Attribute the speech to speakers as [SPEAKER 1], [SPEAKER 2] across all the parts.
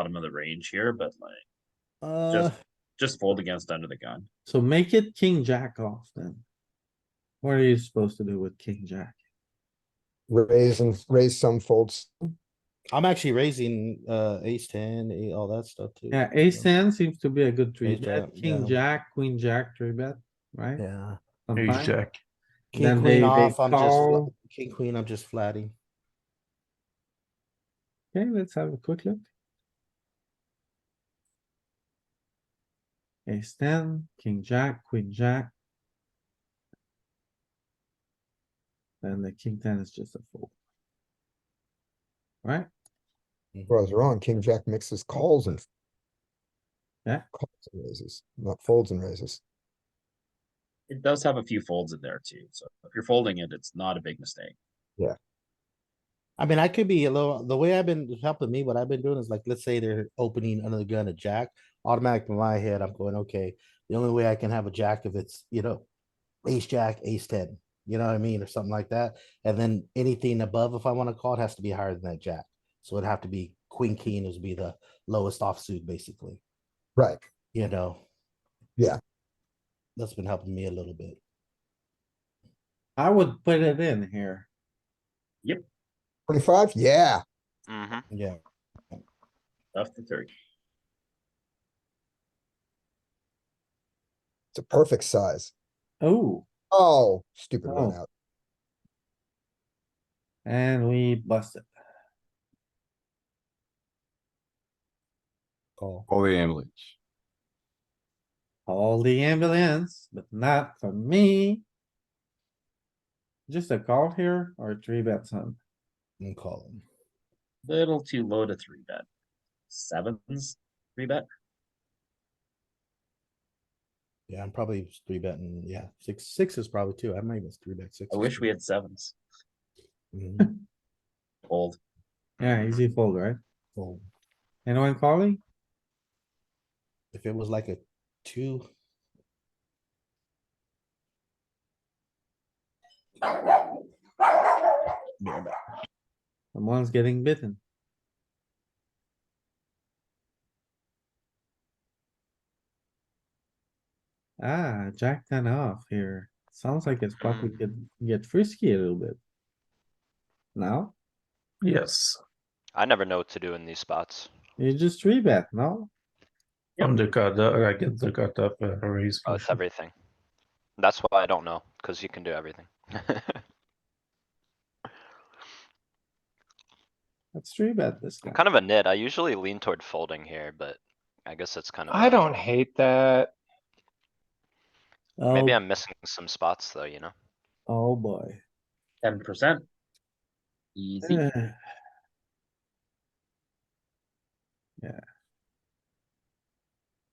[SPEAKER 1] bottom of the range here, but like,
[SPEAKER 2] Uh,
[SPEAKER 1] just fold against under the gun.
[SPEAKER 2] so make it king jack off then. What are you supposed to do with king jack?
[SPEAKER 3] raise and raise some folds.
[SPEAKER 4] I'm actually raising uh ace ten, eight, all that stuff too.
[SPEAKER 2] Yeah, ace ten seems to be a good three
[SPEAKER 4] Ace jack,
[SPEAKER 2] bet, king
[SPEAKER 4] yeah.
[SPEAKER 2] jack, queen jack, three bet, right?
[SPEAKER 3] Yeah.
[SPEAKER 2] Sometimes.
[SPEAKER 5] jack.
[SPEAKER 2] Then
[SPEAKER 4] King
[SPEAKER 2] they-
[SPEAKER 4] queen
[SPEAKER 2] they
[SPEAKER 4] off, I'm just, fla-
[SPEAKER 2] call.
[SPEAKER 4] king queen, I'm just flatting.
[SPEAKER 2] Okay, let's have a quick look. Ace ten, king jack, queen jack. Then the king ten is just a fold. Right?
[SPEAKER 3] Well, I was wrong. King Jack mixes calls and.
[SPEAKER 2] Yeah.
[SPEAKER 3] Calls and raises, not folds and raises.
[SPEAKER 1] It does have a few folds in there too, so if you're folding it, it's not a big mistake.
[SPEAKER 4] I mean, I could be a little, the way I've been helping me, what I've been doing is like, let's say they're opening another gun, a jack. Automatic in my head, I'm going, okay, the only way I can have a jack if it's, you know, ace, jack, ace ten, you know what I mean, or something like that. And then anything above, if I want to call, it has to be higher than that jack. So it'd have to be queen, king is be the lowest offsuit, basically,
[SPEAKER 3] Right.
[SPEAKER 4] you know?
[SPEAKER 3] Yeah.
[SPEAKER 4] That's been helping me a little bit.
[SPEAKER 2] I would put it in here.
[SPEAKER 3] Twenty-five? Yeah.
[SPEAKER 6] Mm-hmm.
[SPEAKER 4] Yeah.
[SPEAKER 1] Left to thirty.
[SPEAKER 3] It's a perfect size.
[SPEAKER 2] Oh,
[SPEAKER 3] Oh, stupid run
[SPEAKER 2] Oh.
[SPEAKER 3] out.
[SPEAKER 2] and we busted.
[SPEAKER 4] Call.
[SPEAKER 5] All the ambulance.
[SPEAKER 2] All the ambulance, but not for me. Just a call here or three bet some?
[SPEAKER 4] And call him.
[SPEAKER 1] Little too low to three bet. Sevens, three bet.
[SPEAKER 4] Yeah, I'm probably three betting. Yeah, six six is probably two. I might even three bet six.
[SPEAKER 1] I wish we had sevens.
[SPEAKER 4] Mhm.
[SPEAKER 1] Fold.
[SPEAKER 2] Yeah, easy fold, right?
[SPEAKER 4] Well,
[SPEAKER 2] Anyone calling?
[SPEAKER 4] if it was like a two. Yeah, but-
[SPEAKER 2] Someone's getting bitten. Ah, jack ten off here. Sounds like it's probably
[SPEAKER 6] Hmm.
[SPEAKER 2] could get frisky a little bit. Now,
[SPEAKER 5] Yes,
[SPEAKER 6] I never know what to do in these spots.
[SPEAKER 2] you just three bet, no?
[SPEAKER 5] I'm the card, uh, I get the card up, uh, raise.
[SPEAKER 6] Oh, it's
[SPEAKER 7] Mm-hmm.
[SPEAKER 6] everything. That's why I don't know, cuz you can do everything. I'm
[SPEAKER 2] Let's three bet this guy.
[SPEAKER 6] kind of a nit. I usually lean toward folding here, but I guess it's kind of.
[SPEAKER 7] I
[SPEAKER 6] a-
[SPEAKER 7] don't hate that.
[SPEAKER 2] Oh,
[SPEAKER 6] Maybe I'm missing some spots though, you know?
[SPEAKER 2] oh boy. Eh,
[SPEAKER 1] Ten percent. Easy.
[SPEAKER 2] Yeah.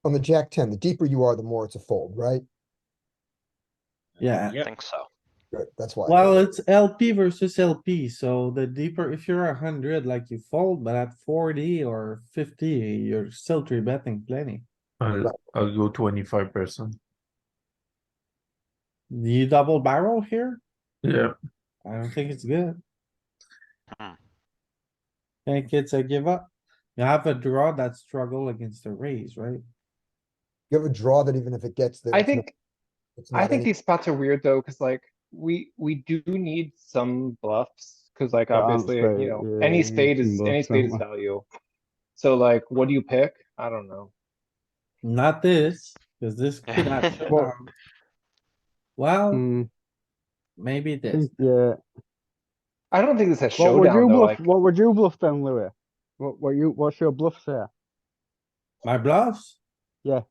[SPEAKER 3] On the Jack ten, the deeper you are, the more it's a fold, right?
[SPEAKER 2] Yeah,
[SPEAKER 6] I
[SPEAKER 1] Yeah.
[SPEAKER 6] think so.
[SPEAKER 3] Good, that's why.
[SPEAKER 2] well, it's LP versus LP, so the deeper, if you're a hundred, like you fold, but at forty or fifty, you're still three betting plenty.
[SPEAKER 5] I'll, I'll go twenty-five percent.
[SPEAKER 2] You double barrel here?
[SPEAKER 5] Yeah,
[SPEAKER 2] I don't think it's good.
[SPEAKER 6] Hmm.
[SPEAKER 2] Think it's a give up. You have a draw that struggle against the raise, right?
[SPEAKER 3] You have a draw that even if it gets there.
[SPEAKER 7] I
[SPEAKER 3] it's not-
[SPEAKER 7] think,
[SPEAKER 3] it's
[SPEAKER 7] I
[SPEAKER 3] not
[SPEAKER 7] think
[SPEAKER 3] any-
[SPEAKER 7] these spots are weird though, cuz like, we, we do need some bluffs. Cuz like
[SPEAKER 8] Yeah, I'm
[SPEAKER 7] obviously,
[SPEAKER 8] straight,
[SPEAKER 7] you know,
[SPEAKER 8] yeah, we
[SPEAKER 7] any
[SPEAKER 8] need
[SPEAKER 7] spade
[SPEAKER 8] some
[SPEAKER 7] is, any
[SPEAKER 8] bluffs
[SPEAKER 7] spade is
[SPEAKER 8] somewhere.
[SPEAKER 7] value. So like, what do you pick? I don't know.
[SPEAKER 2] Not this, cause this could not shut
[SPEAKER 8] Well-
[SPEAKER 2] down. Well,
[SPEAKER 8] Hmm,
[SPEAKER 2] maybe this.
[SPEAKER 8] think- yeah.
[SPEAKER 7] I don't think this has
[SPEAKER 8] What would you
[SPEAKER 7] showdown though,
[SPEAKER 8] bluff,
[SPEAKER 7] like,
[SPEAKER 8] what would you bluff then, Louis? What, what you, what's your bluff there?
[SPEAKER 2] My bluffs?
[SPEAKER 8] Yeah.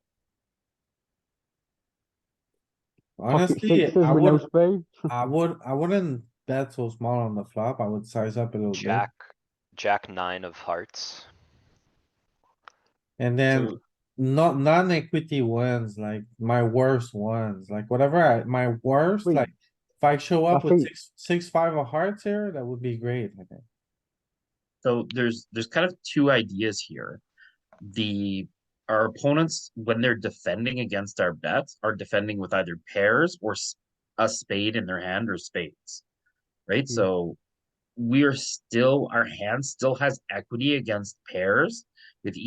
[SPEAKER 8] Pocket
[SPEAKER 2] Honestly,
[SPEAKER 8] sixes
[SPEAKER 2] I
[SPEAKER 8] with no
[SPEAKER 2] would,
[SPEAKER 8] spade?
[SPEAKER 2] I would, I wouldn't bet so small on the flop. I would size up a little bit.
[SPEAKER 6] Jack, jack nine of hearts.
[SPEAKER 2] And then
[SPEAKER 1] So
[SPEAKER 2] not non-equity ones, like my worst ones, like whatever, I my worst,
[SPEAKER 8] Wait.
[SPEAKER 2] like. If I show up
[SPEAKER 8] I
[SPEAKER 2] with
[SPEAKER 8] think-
[SPEAKER 2] six, six, five of hearts here, that would be great, I think.
[SPEAKER 1] So there's, there's kind of two ideas here. The, our opponents, when they're defending against our bets, are defending with either pairs or s- a spade in their hand or spades. Right, so we are still, our hand still has equity against pairs with